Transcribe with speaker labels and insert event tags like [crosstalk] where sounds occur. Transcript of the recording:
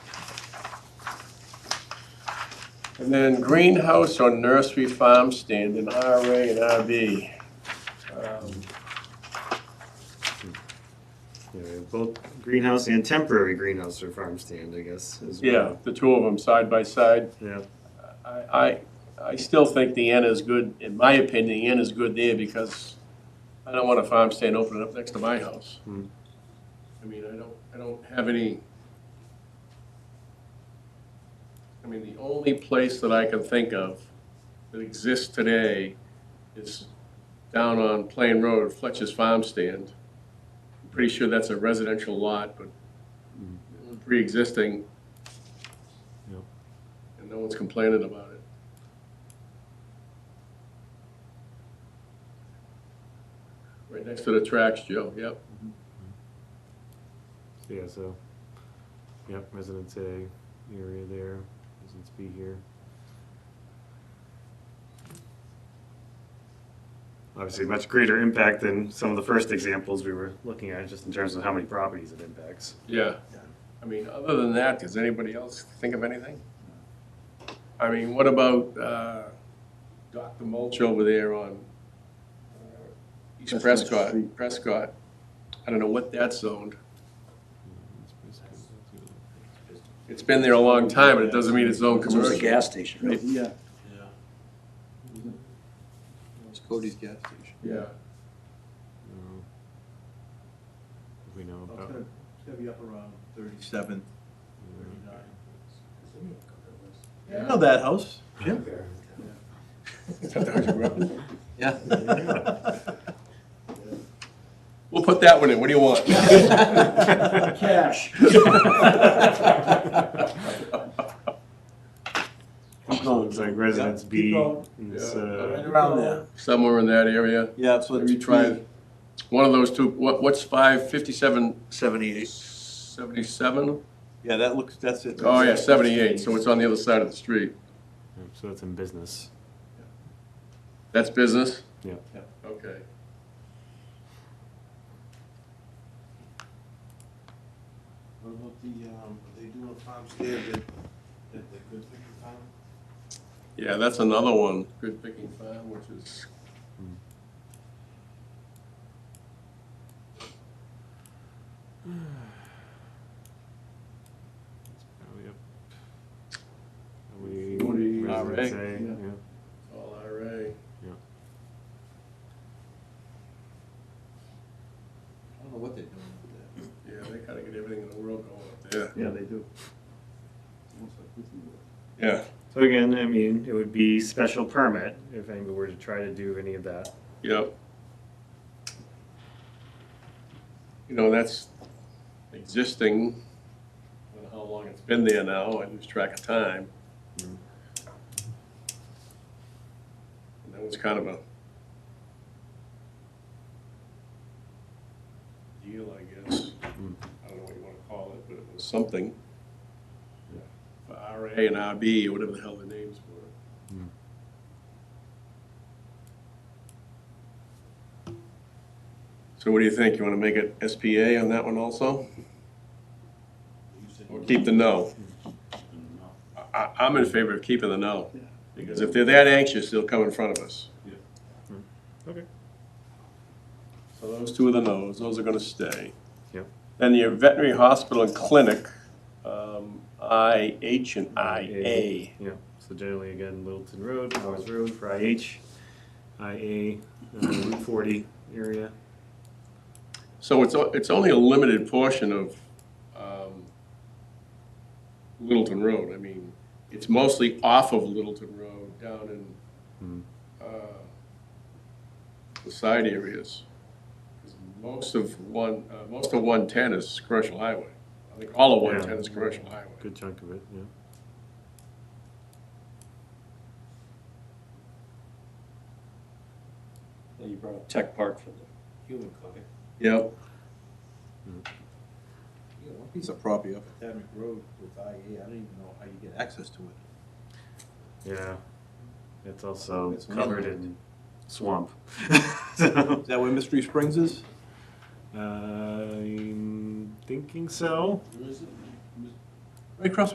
Speaker 1: And then greenhouse or nursery farm stand in RA and RB. Um,
Speaker 2: Yeah, we have both greenhouse and temporary greenhouse or farm stand, I guess, as
Speaker 1: Yeah,
Speaker 2: well.
Speaker 1: the two of them side by side.
Speaker 2: Yeah.
Speaker 1: I, I, I still think the end is good, in my opinion, the end is good there because I don't want a farm stand opening up next to my house.
Speaker 2: Hmm.
Speaker 1: I mean, I don't, I don't have any. I mean, the only place that I can think of that exists today is down on Plain Road, Fletcher's Farm Stand. I'm Pretty sure that's a residential lot, but pre-existing.
Speaker 2: Yep.
Speaker 1: And no one's complaining about it. Right next to the tracks, Joe, yep.
Speaker 2: So, Yeah, so, yep, residence A area there, residence B here. Obviously, much greater impact than some of the first examples we were looking at, just in terms of how many properties it impacts.
Speaker 1: Yeah. I mean, other than that, does anybody else think of anything? I mean, what about uh, Dr. Mulch over there on uh, East
Speaker 3: That's
Speaker 1: Prescott,
Speaker 3: next street.
Speaker 1: Prescott? I don't know what that's zoned. It's been there a long time, and it doesn't mean it's zoned
Speaker 3: It was a
Speaker 1: commercial.
Speaker 3: gas station, right? Yeah. It's Cody's gas station.
Speaker 1: Yeah. [laughs]
Speaker 4: Mm-hmm.
Speaker 2: No. If We know
Speaker 4: Well, It's
Speaker 2: about.
Speaker 4: gonna, it's gonna be up around thirty-seven, thirty-nine. I know that house, Jim.
Speaker 3: Yeah.
Speaker 1: We'll put that one in, what do you want?
Speaker 3: [laughs] Cash.
Speaker 2: So It's like residence
Speaker 4: Yeah, keep
Speaker 2: B.
Speaker 4: going.
Speaker 2: is,
Speaker 1: Yeah.
Speaker 2: uh,
Speaker 4: Around there.
Speaker 1: [laughs] Somewhere in that area,
Speaker 4: Yeah, so
Speaker 1: Have you tried- one of those two, what, what's five, fifty-seven,
Speaker 4: Seventy-eight.
Speaker 1: seventy-seven?
Speaker 4: Yeah, that looks, that's it.
Speaker 1: Oh, yeah, seventy-eight, so it's on the other side of the street.
Speaker 2: So that's in business.
Speaker 1: That's business?
Speaker 2: Yeah.
Speaker 4: Yeah.
Speaker 1: Okay.
Speaker 5: What about the, um, they do a farm stand that, that the good thing farm?
Speaker 1: Yeah, that's another one, good picking farm, which is.
Speaker 2: Oh, yep. We,
Speaker 1: Forty,
Speaker 2: residence
Speaker 1: RA,
Speaker 2: A,
Speaker 1: yeah.
Speaker 2: yeah.
Speaker 1: All IRA.
Speaker 3: I don't know what they're doing.
Speaker 1: Yeah, they kind of get everything in the world going up there.
Speaker 4: Yeah, they do.
Speaker 1: Yeah,
Speaker 2: So again, I mean, it would be special permit if anybody were to try to do any of that.
Speaker 1: yep. You know, that's existing, I don't know how long it's been there now, I lose track of time.
Speaker 2: Mm.
Speaker 1: And That was kind of a deal, I guess.
Speaker 2: Mm.
Speaker 1: I don't know what you want to call it, but it was something. For RA and RB, or whatever the hell the names were. So what do you think? You want to make it SPA on that one also? Or keep the no? I- I, I'm in favor of keeping the no. Because if they're that anxious, they'll come in front of us.
Speaker 2: Okay.
Speaker 1: So those two are the no's, those are gonna stay.
Speaker 2: Yep.
Speaker 1: Then your veterinary hospital and clinic, um, I, H and I, A.
Speaker 2: Yeah, so generally again, Littleton Road, Powers Road for IH, IA, uh, Route forty area.
Speaker 1: So it's, o- it's only a limited portion of, um, Littleton Road. I mean, it's mostly off of Littleton Road down in uh, the side areas. 'Cause Most of one, uh, most of 110 is commercial highway. I think all of
Speaker 2: Yeah.
Speaker 1: 110 is commercial highway.
Speaker 2: Good chunk of it, yeah.
Speaker 3: Well, you brought up Tech Park for the human clinic.
Speaker 1: Yep,
Speaker 4: Yeah, one piece of property up at Tadmore Road with IA, I don't even know how you get access to it.
Speaker 2: Yeah, it's also
Speaker 4: Oh, It's
Speaker 2: covered in swamp. [laughs] So,
Speaker 4: Is that where Mystery Springs is?
Speaker 2: I'm thinking so.
Speaker 3: Where is it?
Speaker 1: right across